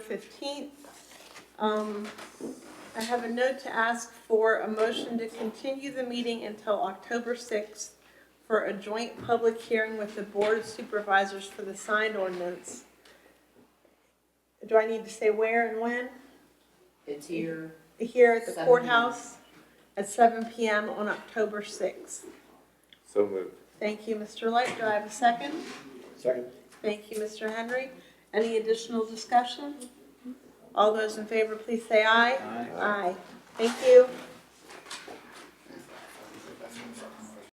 fifteenth. Um, I have a note to ask for a motion to continue the meeting until October sixth for a joint public hearing with the Board of Supervisors for the signed ordinance. Do I need to say where and when? It's here. Here at the Seven. courthouse at seven PM on October sixth. So moved. Thank you, Mr. Light. Do I have a second? Second. Thank you, Mr. Henry. Any additional discussion? All those in favor, please say aye. Aye. Thank you.